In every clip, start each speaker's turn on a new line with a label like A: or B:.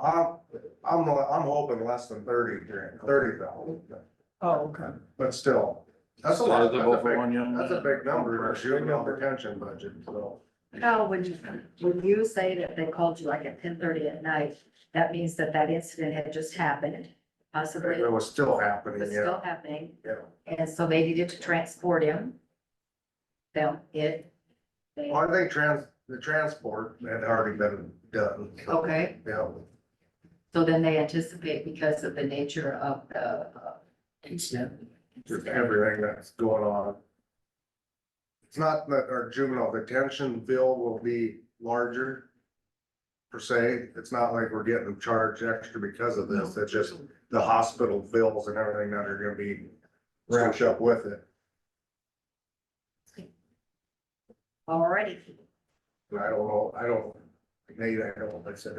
A: I'm, I'm, I'm hoping less than thirty during, thirty thousand,
B: Oh, okay.
A: but still, that's a lot, that's
C: Sizable
A: a
C: for
A: big,
C: one young
A: that's a
C: man.
A: big number in our juvenile detention budget, so.
D: No, when you, when you say that they called you like at ten thirty at night, that means that that incident had just happened, possibly
A: It was still happening,
D: was
A: yeah,
D: still happening,
A: yeah.
D: and so they needed to transport him. Them, it. they-
A: Well, I think trans, the transport had already been done, so,
D: Okay,
A: yeah.
D: so then they anticipate because of the nature of the. uh, incident.
A: just everything that's going on. It's not that our juvenile detention bill will be larger per se. It's not like we're getting charged extra because of this. It's just the hospital bills and everything that are gonna be wrapped up with it.
D: Alrighty,
A: And I don't know, I don't, Nate, I don't, like I said,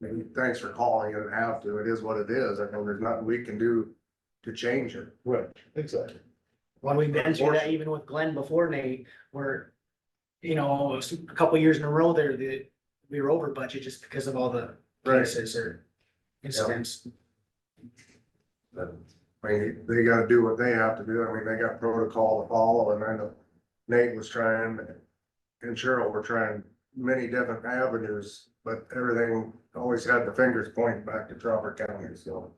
A: maybe thanks for calling. You didn't have to. It is what it is. I know there's nothing we can do to change it.
C: Right, exactly.
E: Well, we've been through that even with Glenn before, Nate, where, you know, a couple years in a row there, that we were over budget just because of all the cases or incidents.
A: But, I mean, they gotta do what they have to do. I mean, they got protocol to follow and I know Nate was trying and Cheryl were trying many different avenues, but everything always had the fingers pointing back to Crawford County, so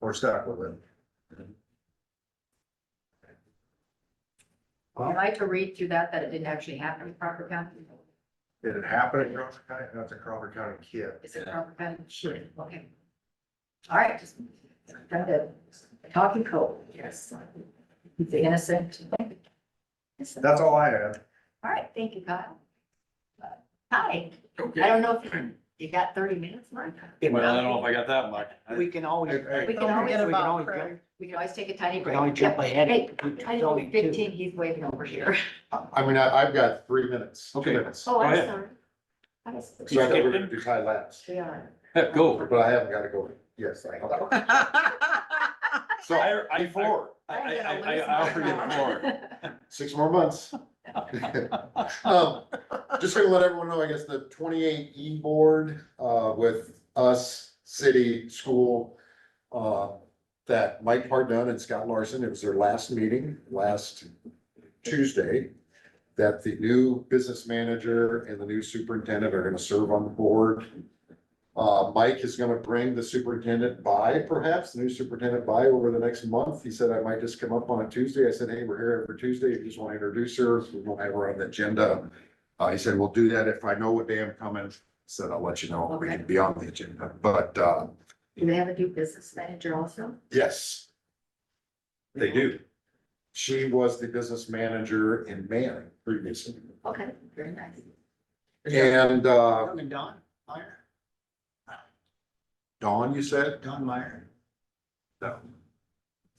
A: we're stuck with it.
D: am I to read through that, that it didn't actually happen in Crawford County?
A: Did it happen in Crawford County? That's a Crawford County kid.
D: Is it Crawford County? Sure. Okay. Alright, just, got it, talking cold, yes. He's innocent.
A: That's all I have.
D: All right, thank you, Kyle. Uh, Hi, I don't know if you- you got thirty minutes, Mark.
C: Well, I don't know if I got that much.
E: We can always.
A: Hey,
D: We can always,
E: we can always-
D: we can always take a tiny
E: We can
D: break.
E: always jump ahead.
D: Hey,
E: It's
D: I
E: only
D: know
E: two.
D: fifteen, he's waiting over here.
F: I I mean, I, I've got three minutes, two
C: Okay.
F: minutes. So
D: Oh, I'm
C: ahead.
D: sorry. I was-
F: I thought we were gonna do Ty last,
D: We are.
C: Heck, Go.
F: but I haven't got to go. Yes, I know. So
C: I- I-
F: before,
C: I,
D: I'm
C: I,
D: gonna
C: I,
D: lose
C: I
D: my
C: offer you
D: mind.
C: more.
F: six more months. Um, Just gonna let everyone know, I guess, the twenty-eight E board, uh, with us, city, school, uh, that Mike Hardon and Scott Larson, it was their last meeting, last Tuesday, that the new business manager and the new superintendent are gonna serve on the board. Uh, Mike is gonna bring the superintendent by, perhaps, the new superintendent by over the next month. He said I might just come up on a Tuesday. I said, hey, we're here every Tuesday. If you just wanna introduce her, we won't have her on the agenda. Uh, he said, we'll do that if I know what day I'm coming. Said, I'll let you know. We can be on the agenda, but, uh,
D: Do they have a new business manager also?
F: yes. They do. She was the business manager in Manning previously.
D: Okay, very nice.
F: And, uh,
E: Young and Don Meyer,
F: Dawn, you said?
E: Don Meyer,
F: No.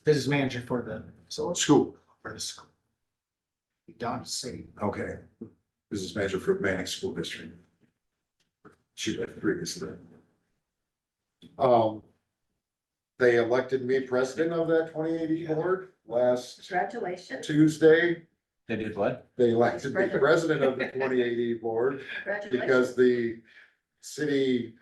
E: business manager for the, so it's
F: School.
E: for the school. Don City.
F: Okay. Business manager for Manic School District. She was previously. Um, they elected me president of that twenty eighty board last
D: Congratulations,
F: Tuesday.
C: They did what?
F: They elected me president of the twenty eighty board
D: congratulations.
F: because the city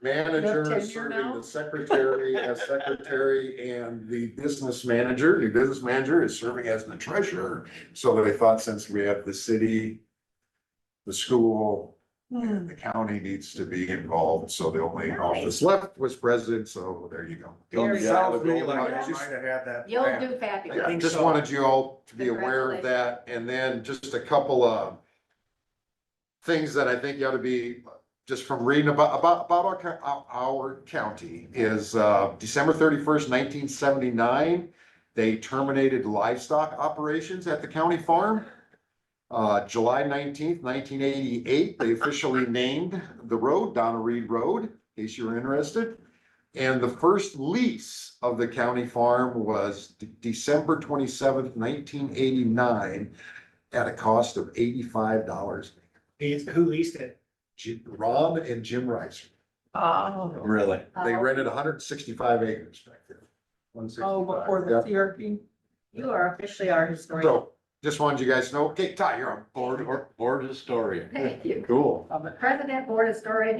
F: manager is serving the secretary as secretary and the business manager, new business manager is serving as the treasurer. So they thought since we have the city, the school, and the county needs to be involved, so the only
D: Nice.
F: office left was president, so there you go.
C: Don't you have
A: Sounds
C: a
A: to me
C: golden
A: like I
C: arches?
A: might have had that.
D: You'll do
F: Yeah,
D: fabulous.
E: think
F: just
E: so.
F: wanted you all to be aware of that, and then just a couple of things that I think you ought to be, just from reading about, about, about our, co- our- our county is, uh, December thirty-first, nineteen seventy-nine, they terminated livestock operations at the county farm. Uh, July nineteenth, nineteen eighty-eight, they officially named the road Donna Reed Road, in case you were interested. And the first lease of the county farm was De- December twenty-seventh, nineteen eighty-nine at a cost of eighty-five dollars.
E: He's, who leased it?
F: Ron and Jim Rice,
B: Oh,
C: Really?
F: they
D: Oh,
F: rented hundred and sixty-five acres back there.
B: oh, before
F: 165,
B: the CRP.
D: You are officially our
F: yeah.
D: historian.
F: So, just wanted you guys to know, okay, Ty, you're on board,
C: Board, or- board historian.
D: Thank you.
F: cool.
B: of it.
D: President Board Historian